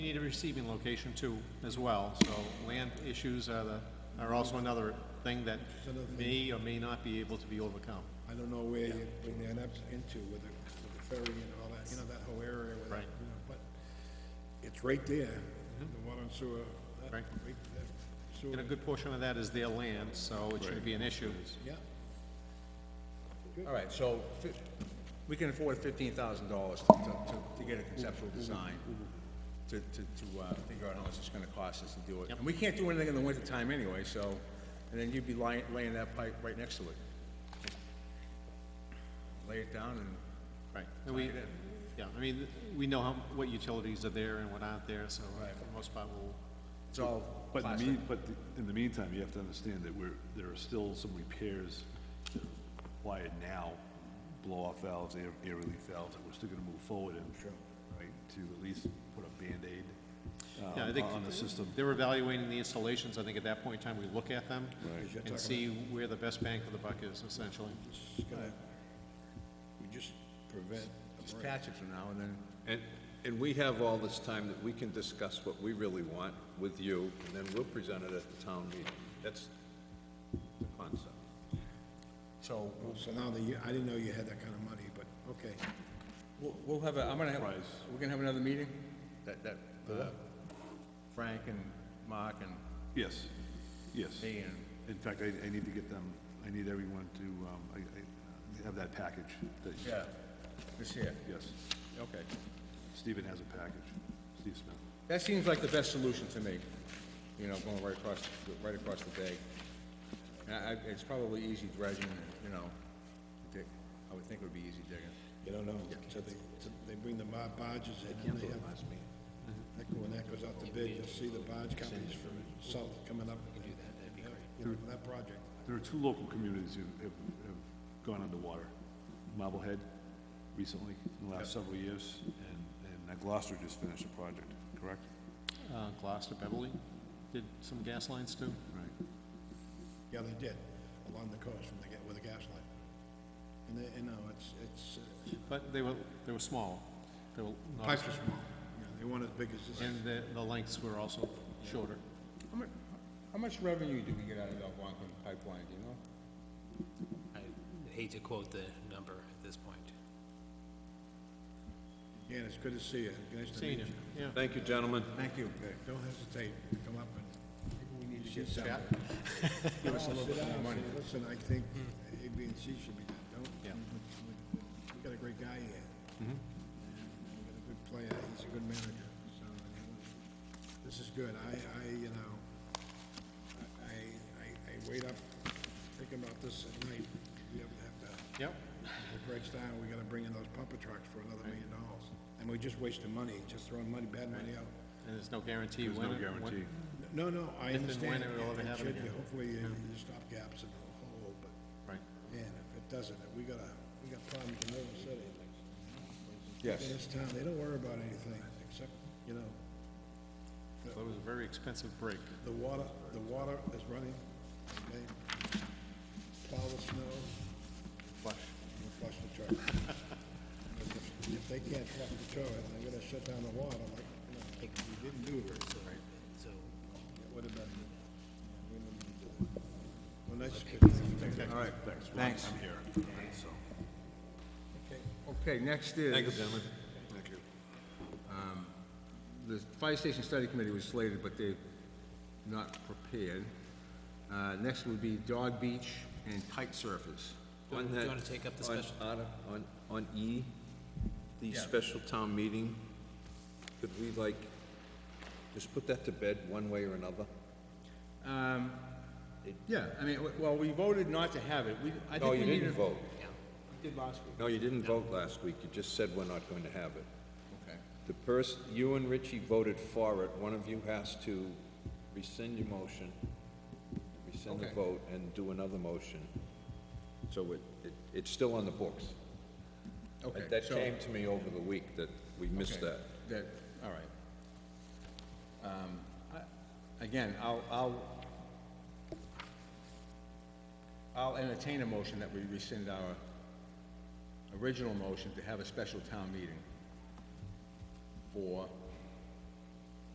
need a receiving location too, as well, so land issues are the, are also another thing that may or may not be able to be overcome. I don't know where you bring that up into with the, with the ferry and all that, you know, that whole area with, Right. you know, but it's right there, the water and sewer. that- Right. that Sewer, And a good portion of that is their land, so it shouldn't be an issue. yeah, All right, so fi- we can afford fifteen thousand dollars to, to, to get a conceptual design, to, to, to, uh, figure out how much it's gonna cost us to do it. And we can't do anything in the wintertime anyway, so, and then you'd be lying, laying that pipe right next to it. Lay it down and, Right. And we, yeah, I mean, we know how, what utilities are there and what aren't there, so Right. for the most part, we'll, it's all But in the plastic. mean, but the- in the meantime, you have to understand that we're, there are still some repairs that required now, blow-off valves, air, air relief valves, that we're still gonna move forward in. Right, to at least put a Band-Aid, yeah, I um, think on the system. they're evaluating the installations, I think at that point in time, we look at them Right. and see where the best bang for the buck is essentially. it's gonna, we just prevent a Just break. patch it for now and then, And, and we have all this time that we can discuss what we really want with you, and then we'll present it at the town meeting. That's the concept. so we'll, So now that you, I didn't know you had that kind of money, but, okay, we'll, we'll have a, I'm gonna have, Price. we're gonna have another meeting? That, that, uh, Frank and Mark and Yes, yes. me and In fact, I, I need to get them, I need everyone to, um, I, I have that package that, Yeah, this here, yes. okay. Stephen has a package, Steve Smith. That seems like the best solution to me, you know, going right across, right across the bay. And I, I- it's probably easy dredging, you know, dig, I would think it would be easy digging. you don't know, so they, till they bring the bar- barges in and they have. That, go- when that goes out to bid, you'll see the barge companies from South coming up. You do that, that'd be great. You know, for that project. There are two local communities who have, have gone underwater. Marblehead recently, in the last several years, and, and Gloucester just finished a project, correct? Uh, Gloucester, Beverly did some gas lines too. Right. Yeah, they did, along the coast from the, ga- with the gas line. And they, you know, it's, it's, uh, But they were, they were small. They were not, pipes as- are small, you know, they weren't as big as this. and the, the lengths were also shorter. How much, how much revenue do we get out of the Algonquin pipeline, do you know? I hate to quote the number at this point. Yeah, it's good to see you, nice to meet Senior, you. yeah. Thank you, gentlemen. Thank you. Don't hesitate, to come up and. We need to get Yeah, Give us a little Sit bit more down, money. Hmm. say, listen, I think A, B, and C should be done, don't? Yeah. We got a great guy here. Mm-hmm. And We got a good player, he's a good manager, so, I mean, this is good, I, I, you know, I- I, I, I wait up, thinking about this at night, we have to have that. Yep, If it breaks down, we gotta bring in those pumper trucks for another million dollars, and we just wasting money, just throwing money, bad money out. and there's no guarantee There's when. no it- when- guarantee. No, no, I If and when understand, it will ever and it happen should be, again. hopefully, you you stop gaps in the hole, but, Right. man, if it doesn't, we got a, we got problems in River City. Yes, In this town, they don't worry about anything, except, you know, So it was a very expensive break. the water, the water is running, okay? Plow the snow, Flush. and flush the toilet. If- If if they can't flush the toilet, they're gonna shut down the water, like, you know, like, we didn't do it. It would've been, we didn't do that. Well, that's good. all right, thanks. I'm here, so. Okay, next is. um, Thank you, gentlemen. The Fire Station Study Committee was slated, but they're not prepared. Uh, Next would be Dog Beach and Kite Surfers. Do you On want to that- take up the on- special? On, on- on E, the special town meeting, could we like, just put that to bed one way or another? Yeah, I mean, w- well, we voted not to have it. We, I No, think we you need didn't to- vote. We Did last week. No, you didn't vote last week. You just said we're not going to have it. Okay. The person, you and Richie voted for it, one of you has to rescind your motion, rescind the Okay. vote, and do another motion. So it, it, it's still on the books. Okay, That so- came to me over the week, that we missed okay, that. That, all right. Um, I- Again, I'll, I'll, I'll entertain a motion that we rescind our original motion to have a special town meeting for